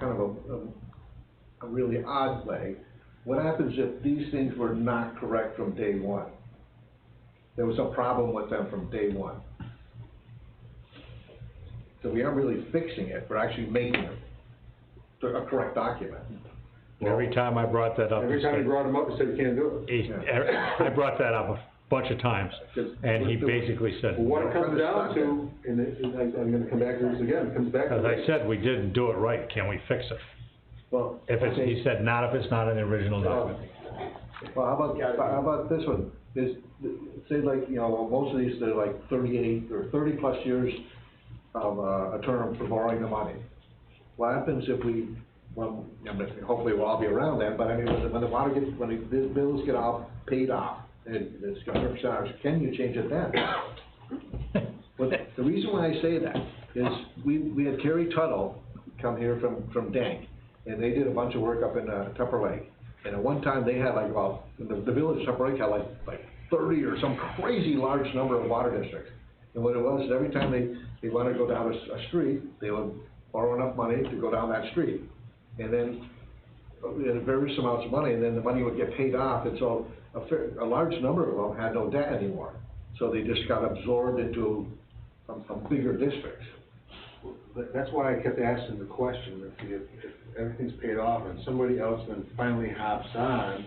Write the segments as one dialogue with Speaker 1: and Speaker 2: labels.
Speaker 1: kind of a, a, a really odd way. What happens if these things were not correct from day one? There was a problem with them from day one. So we aren't really fixing it, we're actually making it a correct document.
Speaker 2: Every time I brought that up.
Speaker 3: Every time you brought him up, you said you can't do it.
Speaker 2: he- I brought that up a bunch of times, and he basically said,
Speaker 3: Well, What it comes down to, and it, and I, I'm gonna come back to this again, it comes back to.
Speaker 2: as I said, we didn't do it right, can we fix it?
Speaker 1: Well,
Speaker 2: If it's, he said, not if it's not in the original document.
Speaker 1: Oh. Well, how about, how about this one? Is, say like, you know, most of these, they're like thirty-eight or thirty-plus years of, uh, a term for borrowing the money. What happens if we, well, I mean, hopefully we'll all be around then, but I mean, when the, when the water gets, when the- the bills get off, paid off, and it's got hundred percent ours, can you change it then? But the reason why I say that is, we, we had Kerry Tuttle come here from, from Dank, and they did a bunch of work up in, uh, Tupper Lake. And at one time, they had like, well, the, the village of Tupper Lake had like, like thirty or some crazy large number of water districts. And what it was, is every time they, they wanted to go down a, s- a street, they would borrow enough money to go down that street. And then, uh, we had various amounts of money, and then the money would get paid off, and so a fair, a large number of them had no debt anymore. So they just got absorbed into a, a bigger district.
Speaker 3: That- That's why I kept asking the question, if, you- if everything's paid off and somebody else then finally hops on,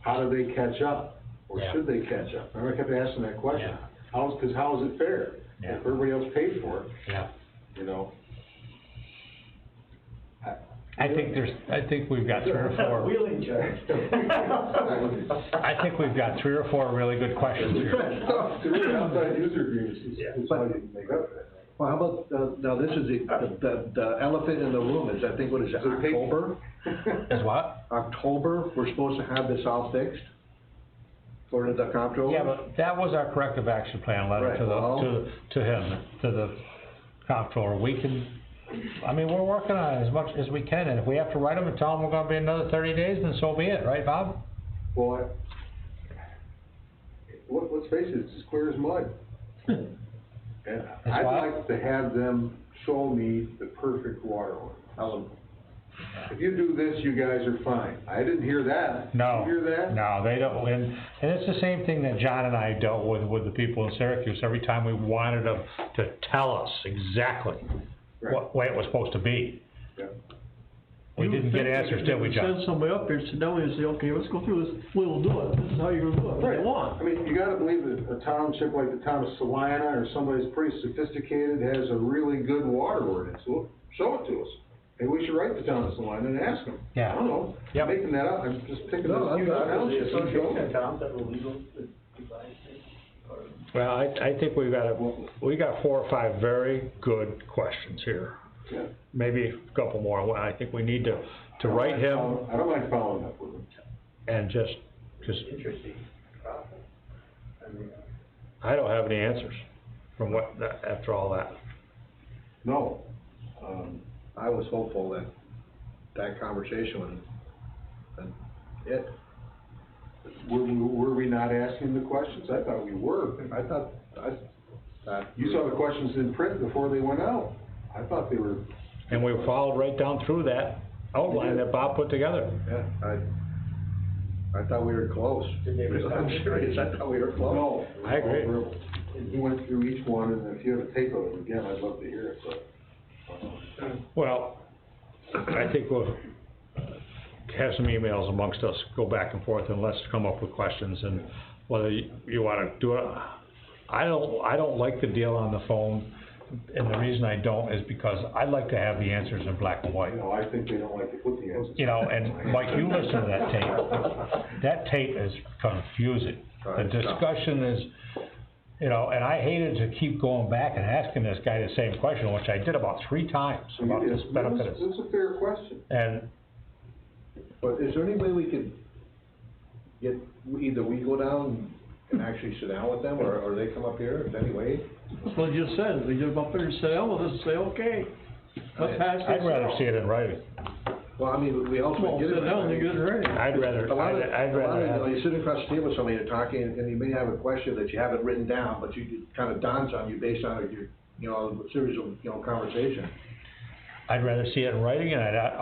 Speaker 3: how do they catch up? Or
Speaker 2: Yeah.
Speaker 3: should they catch up? Remember, I kept asking that question.
Speaker 2: Yeah.
Speaker 3: How's, cause how is it fair?
Speaker 2: Yeah.
Speaker 3: If everybody else paid for it,
Speaker 2: Yeah.
Speaker 3: you know?
Speaker 2: I think there's, I think we've got three or four,
Speaker 4: Wheeling charge.
Speaker 2: I think we've got three or four really good questions here.
Speaker 3: To me, outside user agreements is, is how you make up for that.
Speaker 1: Well, how about, uh, now this is the, the, the elephant in the room is, I think, what is it,
Speaker 3: Is it pink?
Speaker 1: October?
Speaker 2: Is what?
Speaker 1: October, we're supposed to have this all fixed? According to the comptroller?
Speaker 2: Yeah, but that was our corrective action plan letter to
Speaker 1: Right, well-
Speaker 2: the, to, to him, to the comptroller. We can, I mean, we're working on it as much as we can, and if we have to write them and tell them we're gonna be another thirty days, then so be it, right, Bob?
Speaker 3: Well, I- let, let's face it, it's as clear as mud. And I'd
Speaker 2: why-
Speaker 3: like to have them show me the perfect water line.
Speaker 1: I'll-
Speaker 3: If you do this, you guys are fine. I didn't hear that.
Speaker 2: No,
Speaker 3: Did you hear that?
Speaker 2: no, they don't, and, and it's the same thing that John and I dealt with, with the people in Syracuse, every time we wanted them to tell us exactly what way it was supposed to be.
Speaker 3: Yeah.
Speaker 2: We
Speaker 4: You
Speaker 2: didn't get
Speaker 4: think
Speaker 2: answers,
Speaker 4: they
Speaker 2: did we,
Speaker 4: could
Speaker 2: John?
Speaker 4: Send somebody up here, sit down and say, okay, let's go through this, we'll do it, this is how you're gonna do it, what
Speaker 3: Right.
Speaker 4: they
Speaker 3: I
Speaker 4: want.
Speaker 3: mean, you gotta believe that a township like the town of Salina or somebody's pretty sophisticated has a really good water ordinance. Well, show it to us. Maybe we should write the town of Salina and ask them.
Speaker 2: Yeah.
Speaker 3: I don't know.
Speaker 2: Yep.
Speaker 3: I'm Making that up. I'm just thinking
Speaker 1: No,
Speaker 3: of
Speaker 1: I'm
Speaker 3: huge
Speaker 1: not-
Speaker 3: townships.
Speaker 4: towns that were legal to divide things, or?
Speaker 2: Well, I, I think we've got, a- we got four or five very good questions here.
Speaker 3: Yeah.
Speaker 2: Maybe a couple more. Well, I think we need to, to write him
Speaker 3: I don't mind following up with him.
Speaker 2: and just, just,
Speaker 4: Interesting. I mean,
Speaker 2: I don't have any answers from what, that- after all that.
Speaker 3: No. Um,
Speaker 1: I was hopeful that that conversation would, and it,
Speaker 3: were, we- were we not asking the questions? I thought we were.
Speaker 1: I thought, I, that.
Speaker 3: You saw the questions in print before they went out. I thought they were,
Speaker 2: And we followed right down through that outline that Bob put together.
Speaker 1: Yeah, I, I thought we were close. I'm serious, I thought we were close.
Speaker 3: no.
Speaker 2: I agree.
Speaker 3: And He went through each one, and if you have a tape of it again, I'd love to hear it, but.
Speaker 2: Well, I think we'll have some emails amongst us, go back and forth, and let's come up with questions, and whether you you wanna do it. I don't, I don't like the deal on the phone, and the reason I don't is because I like to have the answers in black and white.
Speaker 3: You know, I think they don't like to put the answers.
Speaker 2: You know, and Mike, you listen to that tape, that tape is confusing. The discussion is, you know, and I hated to keep going back and asking this guy the same question, which I did about three times, about this benefit. of-
Speaker 3: It's a fair question.
Speaker 2: And
Speaker 1: But is there any way we could get, either we go down and actually sit down with them, or, or they come up here, is there any way?
Speaker 4: That's what you just said, they just up there and say, oh, let's say, okay, let's pass this
Speaker 2: I'd rather
Speaker 4: out."
Speaker 2: see it in writing.
Speaker 1: Well, I mean, we also
Speaker 4: Well,
Speaker 1: get it.
Speaker 4: sit down and get it ready.
Speaker 2: I'd rather,
Speaker 1: A lot of,
Speaker 2: I'd I'd
Speaker 1: a lot
Speaker 2: rather
Speaker 1: of, you know,
Speaker 2: have,
Speaker 1: you sit across the table with somebody, you're talking, and you may have a question that you haven't written down, but you, it kind of dawns on you based on your, you know, series of, you know, conversation.
Speaker 2: I'd rather see it in writing, and I'd,